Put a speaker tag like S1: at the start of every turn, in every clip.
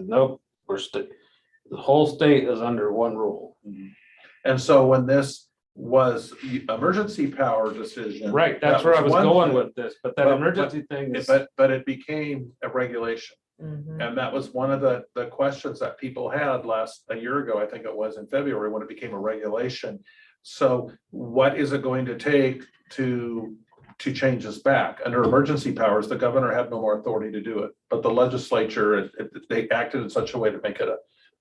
S1: Nope, we're sta- the whole state is under one rule.
S2: And so when this was the emergency power decision.
S1: Right, that's
S2: that
S1: where I was
S2: one
S1: going
S2: thing,
S1: with this, but that
S2: But- but-
S1: emergency thing is,
S2: But, but it became a regulation.
S3: Mhm.
S2: And that was one of the, the questions that people had last, a year ago, I think it was in February, when it became a regulation. So what is it going to take to, to change this back? Under emergency powers, the governor had no more authority to do it, but the legislature, it- it- they acted in such a way to make it a,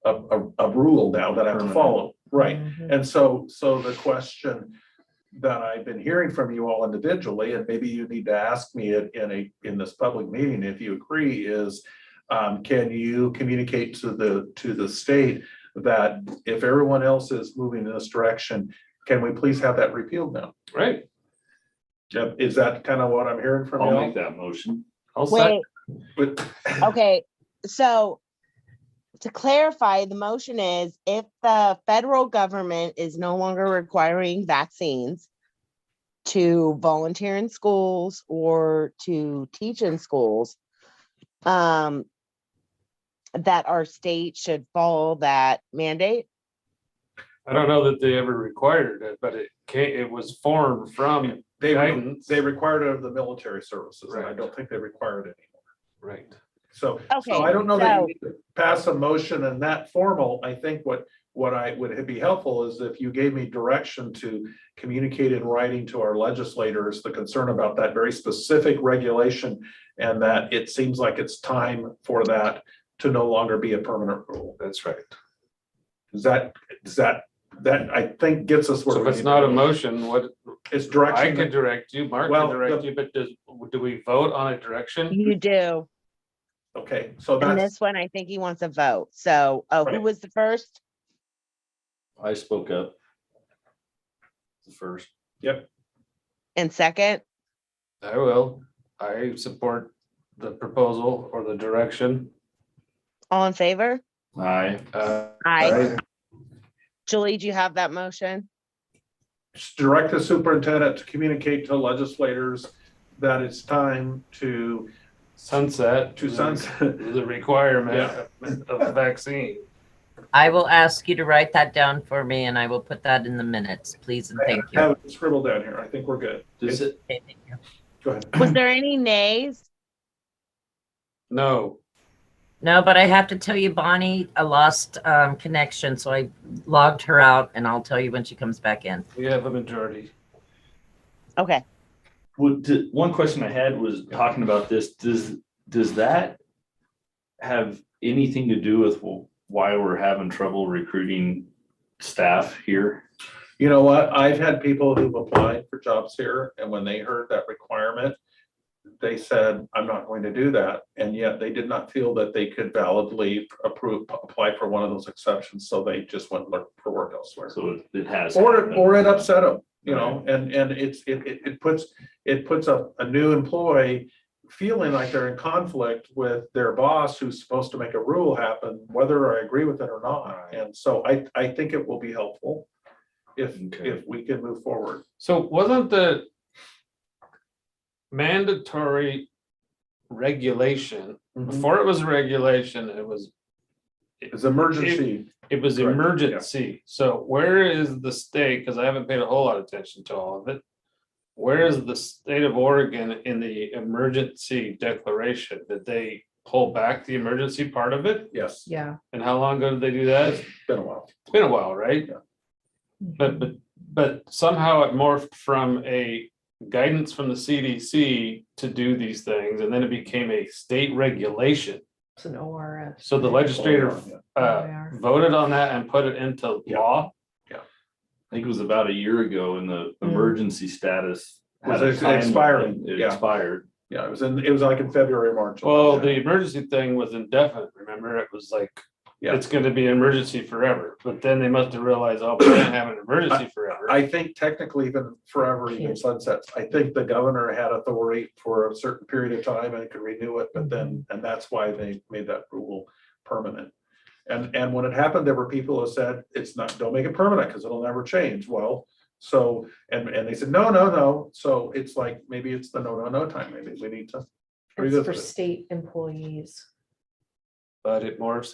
S2: a, a- a rule now that I have to
S1: Permanent.
S2: follow. Right.
S3: Mhm.
S2: And so, so the question that I've been hearing from you all individually, and maybe you need to ask me it in a, in this public meeting, if you agree, is um, can you communicate to the, to the state that if everyone else is moving in this direction, can we please have that repealed now?
S1: right?
S2: Yep, Is that kind of what I'm hearing from you
S4: I'll
S2: all?
S4: make that motion.
S1: I'll say,
S5: Wait,
S2: But-
S5: okay, so to clarify, the motion is if the federal government is no longer requiring vaccines to volunteer in schools or to teach in schools, um, that our state should follow that mandate?
S1: I don't know that they ever required it, but it came, it was formed from
S2: They,
S1: guidance.
S2: they required it of the military services, and I
S1: Right.
S2: don't think they required it.
S1: Right.
S2: So
S5: Okay,
S2: So I don't know that you
S5: so-
S2: need to pass a motion in that formal. I think what, what I would be helpful is if you gave me direction to communicate in writing to our legislators, the concern about that very specific regulation and that it seems like it's time for that to no longer be a permanent rule.
S1: That's right.
S2: Is that, is that, that I think gets us where.
S1: So if
S2: we
S1: it's
S2: need to
S1: not a
S2: go.
S1: motion, what,
S2: It's
S1: I could
S2: direction.
S1: direct you, Mark
S2: Well,
S1: can
S2: the-
S1: direct you, but does, do we vote on a direction?
S5: You do.
S2: Okay, so
S5: And
S2: that's,
S5: this one, I think he wants a vote. So, oh, who
S2: Right.
S5: was the first?
S4: I spoke up. The first.
S5: And second?
S1: I will. I support the proposal or the direction.
S5: All in favor?
S4: Aye.
S1: Uh,
S5: Aye. Julie, do you have that motion?
S2: direct the superintendent to communicate to legislators that it's time to,
S1: sunset.
S2: to sunset,
S1: The requirement of a vaccine.
S3: I will ask you to write that down for me and I will put that in the minutes, please, and thank you.
S2: have it scribbled down here. I think we're good.
S4: Does it,
S3: Okay, thank you.
S2: Go ahead.
S5: Was there any nays?
S1: No,
S3: No, but I have to tell you, Bonnie, I lost um, connection, so I logged her out and I'll tell you when she comes back in.
S1: we have a majority.
S5: Okay,
S4: would, d- one question I had was talking about this, does, does that have anything to do with wh- why we're having trouble recruiting staff here?
S2: You know what? I've had people who've applied for jobs here and when they heard that requirement, they said, I'm not going to do that. And yet they did not feel that they could validly approve, apply for one of those exceptions. So they just went look for work elsewhere.
S4: So it- it has.
S2: Or, or it upset them, you know, and, and it's, it, it, it puts, it puts a, a new employee feeling like they're in conflict with their boss who's supposed to make a rule happen, whether I agree with it or not. And so I, I think it will be helpful if,
S4: Okay.
S2: if we can move forward.
S1: So wasn't the mandatory regulation, before it was a regulation, it was
S2: It's emergency.
S1: It was
S2: Correct, yeah.
S1: emergency, so where is the state, because I haven't paid a whole lot of attention to all of it. Where is the state of Oregon in the emergency declaration? Did they pull back the emergency part of it?
S2: Yes, it's
S6: Yeah.
S1: And how long ago did they do that? It's
S2: been a while.
S1: been a while, right? But but but somehow it morphed from a guidance from the CDC to do these things, and then it became a state regulation.
S6: It's an ORS.
S1: So the legislator
S2: Yeah.
S1: uh voted on that and put it into
S2: Yeah.
S1: law.
S4: I think it was about a year ago in the
S6: Mm.
S4: emergency status.
S2: Was
S4: had a
S2: ex-
S4: time limit.
S2: expiring,
S4: It
S2: yeah.
S4: expired.
S2: Yeah, it was in, it was like in February, March.
S1: Well, the emergency thing was indefinite, remember? It was like,
S2: Yeah.
S1: it's gonna be an emergency forever, but then they must have realized, oh, we can't have an emergency forever.
S2: I think technically even forever, even
S6: Can't.
S2: sunsets, I think the governor had authority for a certain period of time and could renew it, but then, and that's why they made that rule permanent. And, and when it happened, there were people who said, it's not, don't make it permanent, because it'll never change, well, so, and, and they said, no, no, no, so it's like, maybe it's the no, no, no time, maybe we need to.
S6: It's
S2: revisit
S6: for
S2: it.
S6: state employees.
S1: but it morphs